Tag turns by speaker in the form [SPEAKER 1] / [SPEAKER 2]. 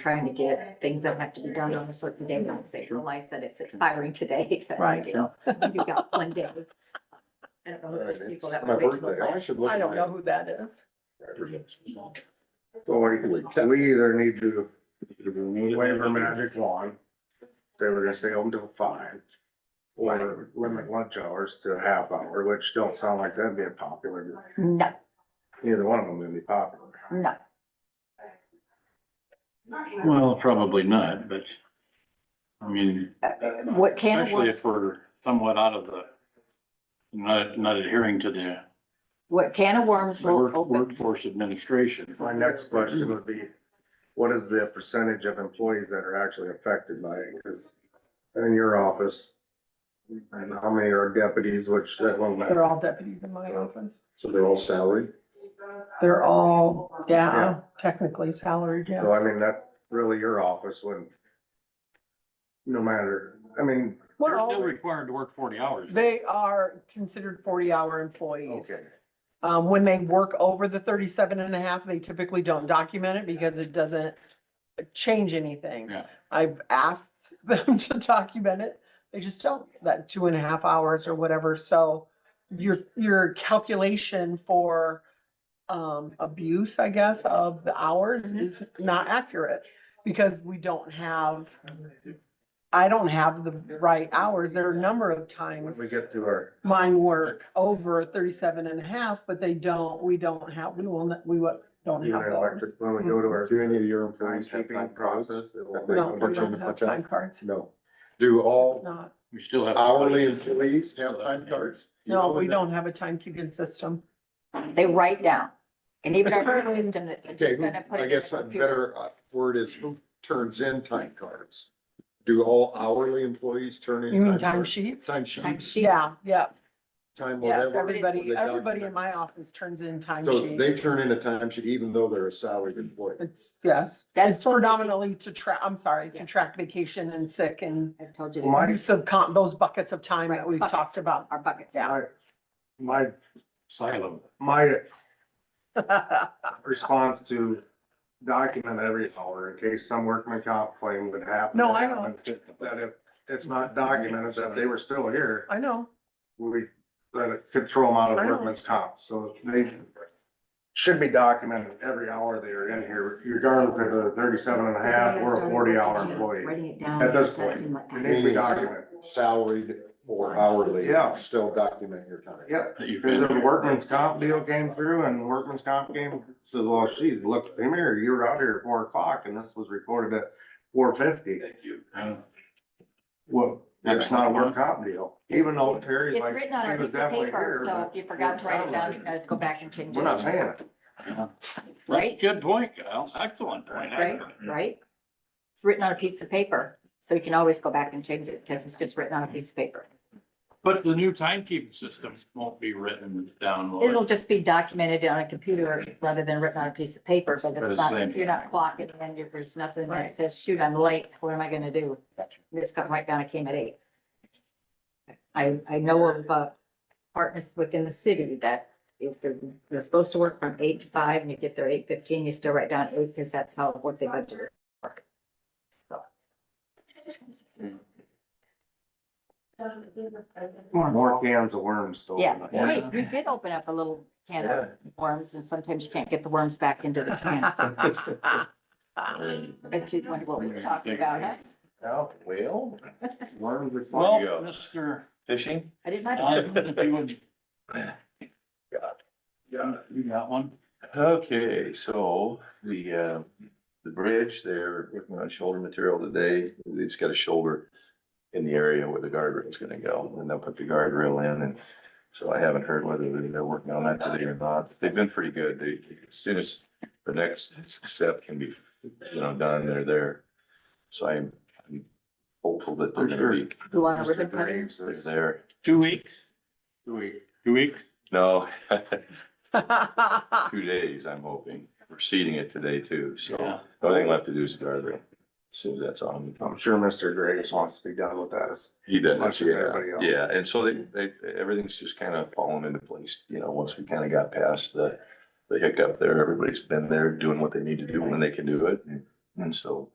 [SPEAKER 1] trying to get things that have to be done on a certain day, once they realize that it's expiring today.
[SPEAKER 2] Right.
[SPEAKER 1] You got one day. I don't know who those
[SPEAKER 3] Right,
[SPEAKER 1] people
[SPEAKER 3] it's
[SPEAKER 1] that
[SPEAKER 3] my
[SPEAKER 1] would wait till the
[SPEAKER 3] birthday. I
[SPEAKER 1] last.
[SPEAKER 3] should look
[SPEAKER 2] I
[SPEAKER 3] at
[SPEAKER 2] don't
[SPEAKER 3] my
[SPEAKER 2] know who that is.
[SPEAKER 3] records.
[SPEAKER 4] So we, we either need to waiver magic wand, say we're gonna stay open till five. Or limit lunch hours to a half hour, which don't sound like that'd be a popular,
[SPEAKER 1] No,
[SPEAKER 4] neither one of them would be popular.
[SPEAKER 1] no,
[SPEAKER 5] Well, probably not, but, I mean,
[SPEAKER 1] what can of
[SPEAKER 5] especially
[SPEAKER 1] worms,
[SPEAKER 5] if we're somewhat out of the, not, not adhering to the
[SPEAKER 1] what can of worms will
[SPEAKER 5] work-
[SPEAKER 1] open,
[SPEAKER 5] workforce administration.
[SPEAKER 4] My next question would be, what is the percentage of employees that are actually affected by it? Cause in your office, and how many are deputies, which that won't
[SPEAKER 2] They're
[SPEAKER 4] matter.
[SPEAKER 2] all deputies in my office.
[SPEAKER 3] So they're all salaried?
[SPEAKER 2] They're all, yeah,
[SPEAKER 4] Yeah.
[SPEAKER 2] technically salaried, yes.
[SPEAKER 4] So I mean, that really your office wouldn't. No matter, I mean,
[SPEAKER 5] They're
[SPEAKER 2] We're
[SPEAKER 5] still
[SPEAKER 2] all,
[SPEAKER 5] required to work forty hours.
[SPEAKER 2] they are considered forty-hour employees.
[SPEAKER 4] okay.
[SPEAKER 2] Um, when they work over the 37 and a half, they typically don't document it because it doesn't change anything.
[SPEAKER 5] Yeah.
[SPEAKER 2] I've asked them to document it. They just don't, that two and a half hours or whatever. So your, your calculation for um, abuse, I guess, of the hours
[SPEAKER 1] Mhm.
[SPEAKER 2] is not accurate because we don't have, I don't have the right hours. There are a number of
[SPEAKER 4] When
[SPEAKER 2] times
[SPEAKER 4] we get to our
[SPEAKER 2] mine work over 37 and a half, but they don't, we don't have, we will, not- we wa- don't
[SPEAKER 4] Even
[SPEAKER 2] have
[SPEAKER 4] our
[SPEAKER 2] those.
[SPEAKER 4] electric, when we go to our
[SPEAKER 3] Mm-hmm. Do any of your employees have time
[SPEAKER 4] timekeeping
[SPEAKER 3] cards?
[SPEAKER 4] process, it will
[SPEAKER 3] They
[SPEAKER 2] No,
[SPEAKER 3] don't
[SPEAKER 2] we
[SPEAKER 3] put you in
[SPEAKER 2] don't
[SPEAKER 3] the
[SPEAKER 2] have
[SPEAKER 3] punch out?
[SPEAKER 2] time cards.
[SPEAKER 3] No. Do
[SPEAKER 2] It's
[SPEAKER 3] all
[SPEAKER 2] not.
[SPEAKER 5] We still have.
[SPEAKER 3] hourly employees have time cards? You
[SPEAKER 2] No,
[SPEAKER 3] know
[SPEAKER 2] we
[SPEAKER 3] that?
[SPEAKER 2] don't have a timekeeping system.
[SPEAKER 1] they write down. And even our system that.
[SPEAKER 3] Okay, who-
[SPEAKER 1] Gonna put it
[SPEAKER 3] I
[SPEAKER 1] in
[SPEAKER 3] guess
[SPEAKER 1] the
[SPEAKER 3] a
[SPEAKER 1] computer.
[SPEAKER 3] better uh, word is who turns in time cards? Do all hourly employees turn in?
[SPEAKER 2] You mean
[SPEAKER 3] time cards?
[SPEAKER 2] timesheets?
[SPEAKER 3] Time
[SPEAKER 1] Time
[SPEAKER 3] sheets,
[SPEAKER 1] sheet.
[SPEAKER 2] Yeah, yeah,
[SPEAKER 3] time
[SPEAKER 2] yes,
[SPEAKER 3] whatever.
[SPEAKER 2] everybody,
[SPEAKER 3] they
[SPEAKER 2] everybody in
[SPEAKER 3] document.
[SPEAKER 2] my office turns in
[SPEAKER 3] So they
[SPEAKER 2] timesheets.
[SPEAKER 3] turn in a time sheet even though they're a salaried employee.
[SPEAKER 2] It's, yes,
[SPEAKER 1] That's
[SPEAKER 2] it's
[SPEAKER 1] what-
[SPEAKER 2] predominantly to track, I'm sorry, to track vacation and sick and
[SPEAKER 1] I've told you,
[SPEAKER 4] My-
[SPEAKER 1] that.
[SPEAKER 2] use of con, those buckets of time that
[SPEAKER 1] Right,
[SPEAKER 2] we've
[SPEAKER 1] buckets.
[SPEAKER 2] talked about.
[SPEAKER 1] our bucket.
[SPEAKER 4] My, my,
[SPEAKER 5] Silo.
[SPEAKER 4] my response to document every hour in case some workman comp claim would happen.
[SPEAKER 2] No, I know.
[SPEAKER 4] That if it's not documented that they were still here,
[SPEAKER 2] I know,
[SPEAKER 4] we, that it could throw them out
[SPEAKER 2] I
[SPEAKER 4] of
[SPEAKER 2] know.
[SPEAKER 4] workman's comp, so they should be documented every hour they are in here, regardless if they're 37 and a half or a forty hour employee.
[SPEAKER 1] Writing it down.
[SPEAKER 4] At this
[SPEAKER 1] that
[SPEAKER 4] point,
[SPEAKER 1] seemed like-
[SPEAKER 4] It needs to be documented.
[SPEAKER 3] Salaried or hourly,
[SPEAKER 4] Yeah.
[SPEAKER 3] still document your time.
[SPEAKER 4] Yep.
[SPEAKER 5] that you've
[SPEAKER 4] Because
[SPEAKER 5] been
[SPEAKER 4] the
[SPEAKER 5] here.
[SPEAKER 4] workman's comp deal came through and the workman's comp came, says, well, geez, look, the mirror, you were out here at four o'clock and this was recorded at four fifty.
[SPEAKER 5] Uh,
[SPEAKER 4] Well, that's not a work comp deal, even though Terry's
[SPEAKER 1] It's
[SPEAKER 4] like,
[SPEAKER 1] written on
[SPEAKER 4] she
[SPEAKER 1] a
[SPEAKER 4] was
[SPEAKER 1] piece of
[SPEAKER 4] definitely
[SPEAKER 1] paper,
[SPEAKER 4] here,
[SPEAKER 1] so
[SPEAKER 4] but
[SPEAKER 1] if you forgot to write it down, you can always go back and change
[SPEAKER 4] we're
[SPEAKER 1] it,
[SPEAKER 4] not paying it.
[SPEAKER 5] yeah. That's a
[SPEAKER 1] Right.
[SPEAKER 5] good point, Kyle. Excellent point.
[SPEAKER 1] right, right? It's written on a piece of paper, so you can always go back and change it, because it's just written on a piece of paper.
[SPEAKER 5] But the new timekeeping system won't be written down. will it?
[SPEAKER 1] It'll just be documented on a computer rather than written on a piece of paper, but
[SPEAKER 5] For the
[SPEAKER 1] it's not,
[SPEAKER 5] same.
[SPEAKER 1] you're not clocking, and you're- there's nothing
[SPEAKER 2] Right.
[SPEAKER 1] that says, shoot, I'm late, what am I gonna do? You just come right down, I came at eight. I, I know of, uh, partners within the city that if they're, they're supposed to work from eight to five, and you get there eight fifteen, you still write down eight, because that's how, what they budget. for. So.
[SPEAKER 4] More cans of worms still.
[SPEAKER 1] Yeah,
[SPEAKER 5] Yeah.
[SPEAKER 1] hey, we did open up a little can of worms and sometimes you can't get the worms back into the can. But you wonder what we were talking about, huh?
[SPEAKER 3] Well.
[SPEAKER 4] Worms are.
[SPEAKER 5] Well, Mr.
[SPEAKER 6] Fishing?
[SPEAKER 1] I didn't mind.
[SPEAKER 5] Diamond, if you would,
[SPEAKER 6] Yeah.
[SPEAKER 5] you got one?
[SPEAKER 6] Okay, so the, uh, the bridge, they're working on shoulder material today. It's got a shoulder in the area where the guardrail's gonna go, and they'll put the guardrail in, and so I haven't heard whether they're working on that today or not. They've been pretty good. They, as soon as the next step can be, you know, done, they're there. So I'm I'm hopeful that they're gonna be,
[SPEAKER 1] You want a ribbon
[SPEAKER 4] Mr.
[SPEAKER 1] cutting?
[SPEAKER 4] Graves
[SPEAKER 6] they're
[SPEAKER 4] is
[SPEAKER 6] there.
[SPEAKER 5] Two weeks,
[SPEAKER 4] doing
[SPEAKER 5] two weeks?
[SPEAKER 6] No, two days, I'm hoping. We're seeding it today too, so
[SPEAKER 5] Yeah.
[SPEAKER 6] the only thing left to do is the guardrail. Soon as that's on.
[SPEAKER 4] I'm sure Mr. Graves wants to be done with that. It's-
[SPEAKER 6] He
[SPEAKER 4] Much
[SPEAKER 6] does,
[SPEAKER 4] as
[SPEAKER 6] yeah,
[SPEAKER 4] everybody else.
[SPEAKER 6] yeah, and so they, they, everything's just kind of falling into place, you know, once we kind of got past the, the hiccup there, everybody's been there doing what they need to do when they can do it. and And so